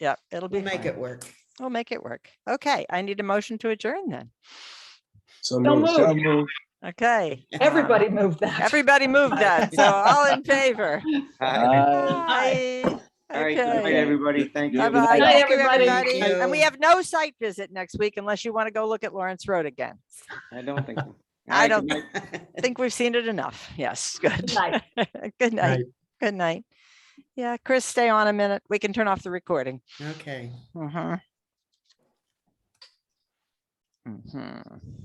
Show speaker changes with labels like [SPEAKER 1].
[SPEAKER 1] yeah, it'll be,
[SPEAKER 2] We'll make it work.
[SPEAKER 1] we'll make it work. Okay, I need a motion to adjourn then.
[SPEAKER 3] So
[SPEAKER 4] Don't
[SPEAKER 3] moved.
[SPEAKER 4] move.
[SPEAKER 1] Okay. um,
[SPEAKER 4] Everybody moved that.
[SPEAKER 1] Everybody moved that, so all in favor.
[SPEAKER 4] Aye.
[SPEAKER 1] Aye.
[SPEAKER 5] All right, good night,
[SPEAKER 1] Okay.
[SPEAKER 5] everybody. Thank you.
[SPEAKER 3] Good
[SPEAKER 1] Bye-bye.
[SPEAKER 4] night,
[SPEAKER 1] Thank you,
[SPEAKER 4] everybody.
[SPEAKER 1] everybody.
[SPEAKER 2] Thank
[SPEAKER 1] And we
[SPEAKER 2] you.
[SPEAKER 1] have no site visit next week unless you want to go look at Lawrence Road again.
[SPEAKER 5] I don't think. so. All
[SPEAKER 1] I
[SPEAKER 5] right, good
[SPEAKER 1] don't-
[SPEAKER 5] night.
[SPEAKER 1] I think we've seen it enough. Yes, good.
[SPEAKER 4] Good night.
[SPEAKER 1] Good night. Good night. Yeah, Chris, stay on a minute. We can turn off the recording. Mm-hmm.
[SPEAKER 2] Okay.
[SPEAKER 1] Mhm. Mhm.